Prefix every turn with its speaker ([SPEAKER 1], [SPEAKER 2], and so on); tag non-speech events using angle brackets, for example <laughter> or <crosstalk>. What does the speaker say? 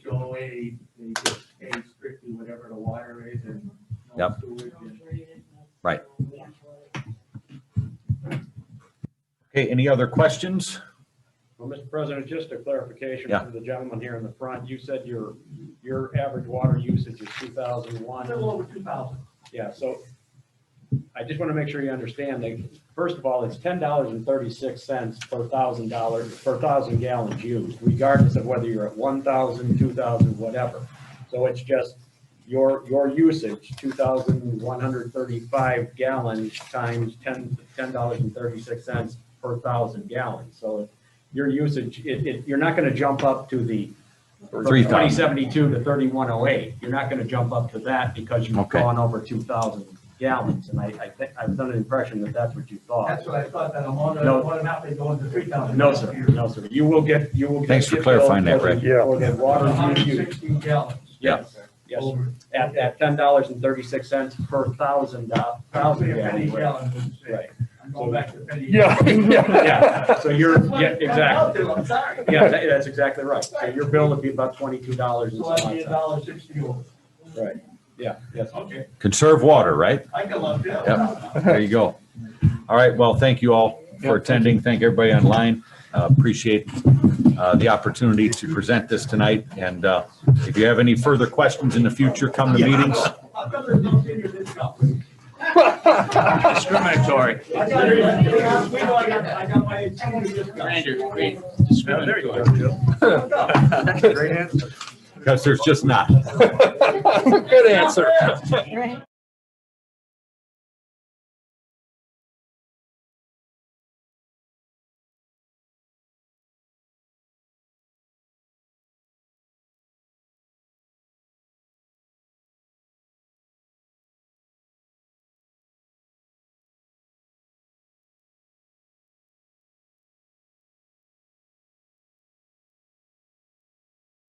[SPEAKER 1] way, they just pay strictly whatever the water is and no
[SPEAKER 2] Yep.
[SPEAKER 1] sewage and
[SPEAKER 2] Right.
[SPEAKER 3] Okay, any other questions?
[SPEAKER 4] Well, Mr. President, just a clarification
[SPEAKER 2] Yeah.
[SPEAKER 4] from the gentleman here in the front. You said your, your average water usage is two thousand
[SPEAKER 1] a
[SPEAKER 4] one.
[SPEAKER 1] little over two thousand.
[SPEAKER 4] Yeah, so I just want to make sure you understand that, first of all, it's ten dollars and thirty-six cents per thousand dollars, per thousand gallons used, regardless of whether you're at 1,000, 2,000, whatever. So it's just your, your usage, two thousand one hundred thirty-five gallons times ten, ten dollars and thirty-six cents per thousand gallons. So your usage, it, it, you're not going to jump up to the from
[SPEAKER 2] 3,000.
[SPEAKER 4] 2072 to 3108. You're not going to jump up to that because you've
[SPEAKER 2] Okay.
[SPEAKER 4] gone over 2,000 gallons. And I, I think, I was under the impression that that's what you thought.
[SPEAKER 1] That's what I thought, that I'm on,
[SPEAKER 4] No.
[SPEAKER 1] on and out, they go into three thousand.
[SPEAKER 4] No, sir, no, sir. You will get, you will. get-
[SPEAKER 2] Thanks for
[SPEAKER 4] get
[SPEAKER 2] clarifying
[SPEAKER 4] billed
[SPEAKER 2] that, Rick.
[SPEAKER 4] for the- For the water
[SPEAKER 1] hundred and
[SPEAKER 4] you use.
[SPEAKER 1] sixteen gallons.
[SPEAKER 4] Yes, yes.
[SPEAKER 1] Over.
[SPEAKER 4] At, at $10.36 per thousand, do-
[SPEAKER 1] Probably
[SPEAKER 4] thousand
[SPEAKER 1] a penny
[SPEAKER 4] gallon. rate.
[SPEAKER 1] gallon, let's say.
[SPEAKER 4] Right.
[SPEAKER 1] I'm going back to penny.
[SPEAKER 5] Yeah,
[SPEAKER 4] <laughs> Yeah, so you're,
[SPEAKER 1] That's what
[SPEAKER 4] yeah,
[SPEAKER 1] it comes
[SPEAKER 4] exactly.
[SPEAKER 1] out to, I'm sorry.
[SPEAKER 4] Yeah, that- that's exactly right. So your bill would be about $22 and
[SPEAKER 1] So
[SPEAKER 4] some
[SPEAKER 1] I'd be a
[SPEAKER 4] odd cents.
[SPEAKER 1] dollar sixty over.
[SPEAKER 4] Right, yeah, yes.
[SPEAKER 1] Okay,
[SPEAKER 2] Conserve water, right?
[SPEAKER 1] I can love that.
[SPEAKER 2] Yep. There you go. All right, well, thank you all for attending. Thank everybody online. Uh, Appreciate uh, the opportunity to present this tonight. And uh, if you have any further questions in the future, come to meetings.
[SPEAKER 1] How come there's no senior discount?
[SPEAKER 6] Discriminatory.
[SPEAKER 1] I got, it. we know I got, I got my senior discount.
[SPEAKER 6] Commander, wait,
[SPEAKER 5] There you
[SPEAKER 6] discriminatory.
[SPEAKER 2] Because there's just not. <laughs>
[SPEAKER 5] Good answer.
[SPEAKER 6] Right.